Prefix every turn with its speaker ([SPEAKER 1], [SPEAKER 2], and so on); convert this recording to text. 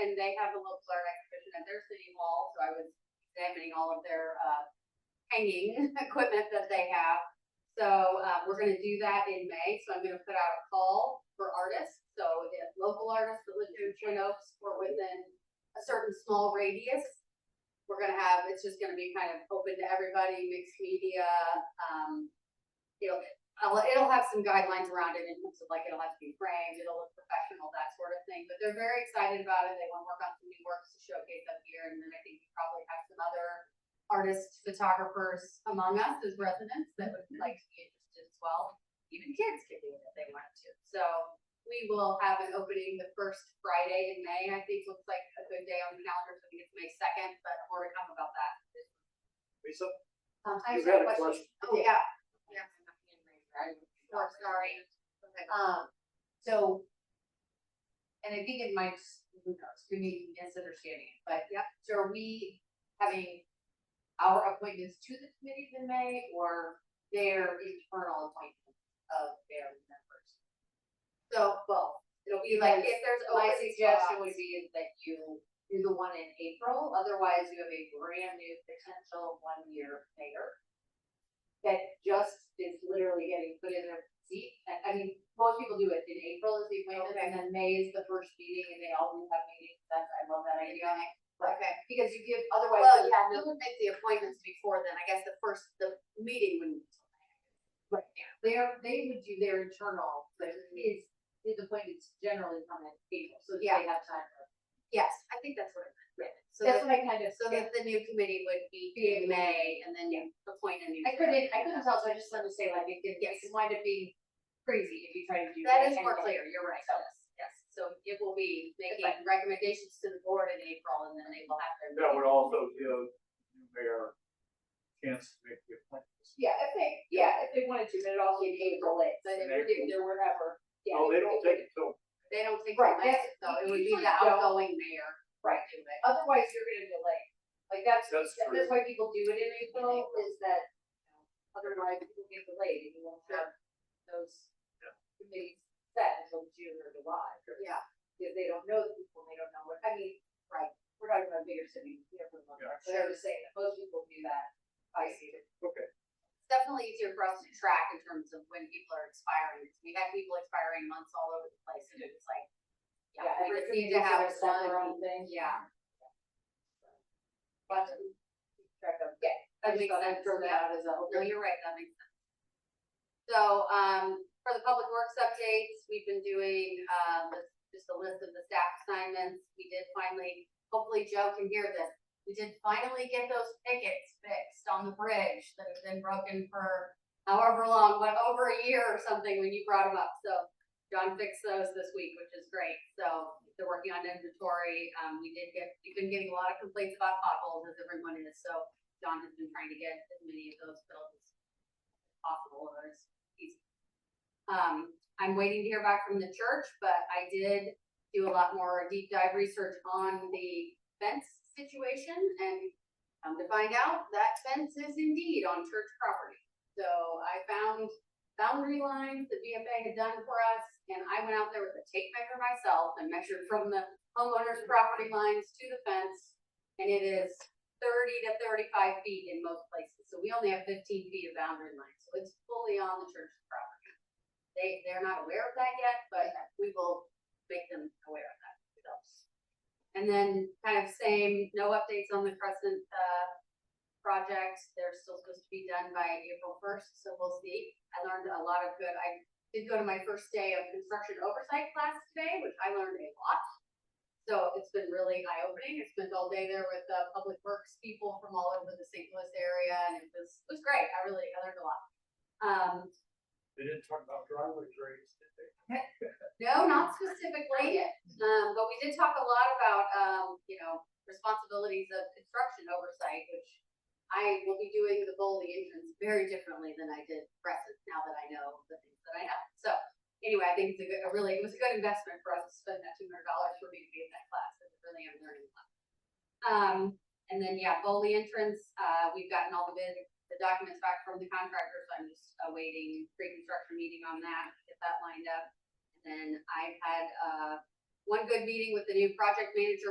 [SPEAKER 1] and they have a local art exhibition at their city hall, so I was examining all of their, uh, hanging equipment that they have. So, uh, we're gonna do that in May, so I'm gonna put out a call for artists, so if local artists that live in Twin Oaks or within a certain small radius, we're gonna have, it's just gonna be kind of open to everybody, mixed media, um, you know, I'll, Uh, it'll have some guidelines around it in terms of like, it'll have to be framed, it'll look professional, that sort of thing, but they're very excited about it, they wanna work on some new works to showcase up here, and then I think we probably have some other artists, photographers among us as residents that would like to be interested as well. Even kids could do it if they wanted to, so we will have an opening the first Friday in May, I think looks like a good day on the calendar, so I think it's May second, but more to come about that.
[SPEAKER 2] Lisa?
[SPEAKER 1] Um, I
[SPEAKER 2] You
[SPEAKER 1] just have
[SPEAKER 2] had
[SPEAKER 1] a
[SPEAKER 2] a
[SPEAKER 1] question. Oh,
[SPEAKER 3] question.
[SPEAKER 1] yeah. Yeah. Oh, sorry.
[SPEAKER 3] Um, so. And I think it might, just- who knows, we may be misunderstanding it, but.
[SPEAKER 1] Yep.
[SPEAKER 3] So are we having our appointments to the committees in May or their internal appointment of their members?
[SPEAKER 1] So, well, it'll be like, if there's
[SPEAKER 3] My
[SPEAKER 1] open
[SPEAKER 3] suggestion
[SPEAKER 1] spots-
[SPEAKER 3] would be is that you do the one in April, otherwise you have a brand new potential one-year mayor. That just is literally getting put in their seat, I, I mean, most people do it in April is the appointment, and then May is the first meeting, and they always have meetings, that's, I love that idea.
[SPEAKER 1] Okay,
[SPEAKER 3] Because you give, otherwise.
[SPEAKER 1] well,
[SPEAKER 3] you-
[SPEAKER 1] yeah, we would make the appointments before then, I guess the first, the meeting wouldn't.
[SPEAKER 3] They're, they would do their internal, but his, his appointments generally come in April, so that they have time. for-
[SPEAKER 1] Yes, I think that's what it meant. So that,
[SPEAKER 3] That's what I kind of,
[SPEAKER 1] so that the new committee would be in
[SPEAKER 3] Be able to-
[SPEAKER 1] May and then you appoint a new.
[SPEAKER 3] I couldn't, I couldn't tell, so I just wanted to say like, it could,
[SPEAKER 1] Yes.
[SPEAKER 3] it could wind up being crazy if you try to do.
[SPEAKER 1] That is
[SPEAKER 3] that
[SPEAKER 1] more
[SPEAKER 3] anyway.
[SPEAKER 1] clear, you're right,
[SPEAKER 3] So-
[SPEAKER 1] yes, yes, so it will be making
[SPEAKER 3] But-
[SPEAKER 1] recommendations to the board in April and then they will have their.
[SPEAKER 2] That would also give new mayor chance to make the appointments.
[SPEAKER 4] Yeah, if they, yeah, if they wanted to, then it also
[SPEAKER 1] In
[SPEAKER 4] in April, it, but if
[SPEAKER 2] In
[SPEAKER 4] we're
[SPEAKER 2] April.
[SPEAKER 4] doing there wherever, yeah.
[SPEAKER 2] No, Oh, they
[SPEAKER 4] if-
[SPEAKER 2] don't
[SPEAKER 4] if-
[SPEAKER 2] take it till
[SPEAKER 1] They don't think.
[SPEAKER 4] Right,
[SPEAKER 1] they
[SPEAKER 4] that's-
[SPEAKER 1] miss it, Though it would be
[SPEAKER 4] usually
[SPEAKER 1] the
[SPEAKER 4] don't.
[SPEAKER 1] outgoing mayor.
[SPEAKER 4] Right.
[SPEAKER 1] do it.
[SPEAKER 4] Otherwise, you're gonna delay, like that's,
[SPEAKER 2] That's
[SPEAKER 4] that- that's
[SPEAKER 2] true.
[SPEAKER 4] why people do it in April,
[SPEAKER 3] April.
[SPEAKER 4] is that, you know, otherwise people get delayed, and you won't have those
[SPEAKER 2] Yeah.
[SPEAKER 4] committees set until June or July.
[SPEAKER 1] Yeah.
[SPEAKER 4] Because they don't know the people, they don't know what, I mean, right, we're talking about bigger cities, you know, for the most part, but I was saying that most people do that, I see it.
[SPEAKER 1] It's definitely easier for us to track in terms of when people are expiring. We had people expiring months all over the place and it was like. Yeah, we just need to
[SPEAKER 4] community's
[SPEAKER 1] have
[SPEAKER 4] gonna set their
[SPEAKER 1] one,
[SPEAKER 4] own thing.
[SPEAKER 1] yeah.
[SPEAKER 4] But, track of, yeah,
[SPEAKER 1] That
[SPEAKER 3] I just
[SPEAKER 1] makes
[SPEAKER 3] thought
[SPEAKER 1] sense,
[SPEAKER 3] I'd throw that
[SPEAKER 1] yeah.
[SPEAKER 3] out as a.
[SPEAKER 1] No, you're right, that makes sense. So, um, for the public works updates, we've been doing, um, just a list of the staff assignments. We did finally, hopefully Joe can hear this. We did finally get those pickets fixed on the bridge that have been broken for however long, what, over a year or something when you brought them up. So John fixed those this week, which is great. So they're working on inventory. Um, we did get, we've been getting a lot of complaints about potholes as everyone is. So John has been trying to get as many of those filled as possible, or as easy. Um, I'm waiting to hear back from the church, but I did do a lot more deep dive research on the fence situation, and come to find out, that fence is indeed on church property. So I found boundary lines that BFA had done for us, and I went out there with a tape measure myself and measured from the homeowner's property lines to the fence, and it is thirty to thirty-five feet in most places, so we only have fifteen feet of boundary line, so it's fully on the church's property. They, they're not aware of that yet, but we will make them aware of that, so. And then kind of same, no updates on the Crescent, uh, project, they're still supposed to be done by April first, so we'll see. I learned a lot of good, I did go to my first day of construction oversight class today, which I learned a lot. So it's been really eye-opening. I spent all day there with the public works people from all over the St. Louis area and it was, it was great. I really, I learned a lot. Um,
[SPEAKER 2] They didn't talk about driveway grades, did they?
[SPEAKER 1] no, not specifically, um, but we did talk a lot about, um, you know, responsibilities of construction oversight, which I will be doing the Boldy entrance very differently than I did Crescent, now that I know the things that I know. So, anyway, I think it's a good, a really, it was a good investment for us to spend that two hundred dollars for me to be in that class, because really I'm learning a lot. Um, and then, yeah, Boldy entrance, uh, we've gotten all the bid, the documents back from the contractor, so I'm just awaiting pre-construction meeting on that, get that lined up. And then I had, uh, one good meeting with the new project manager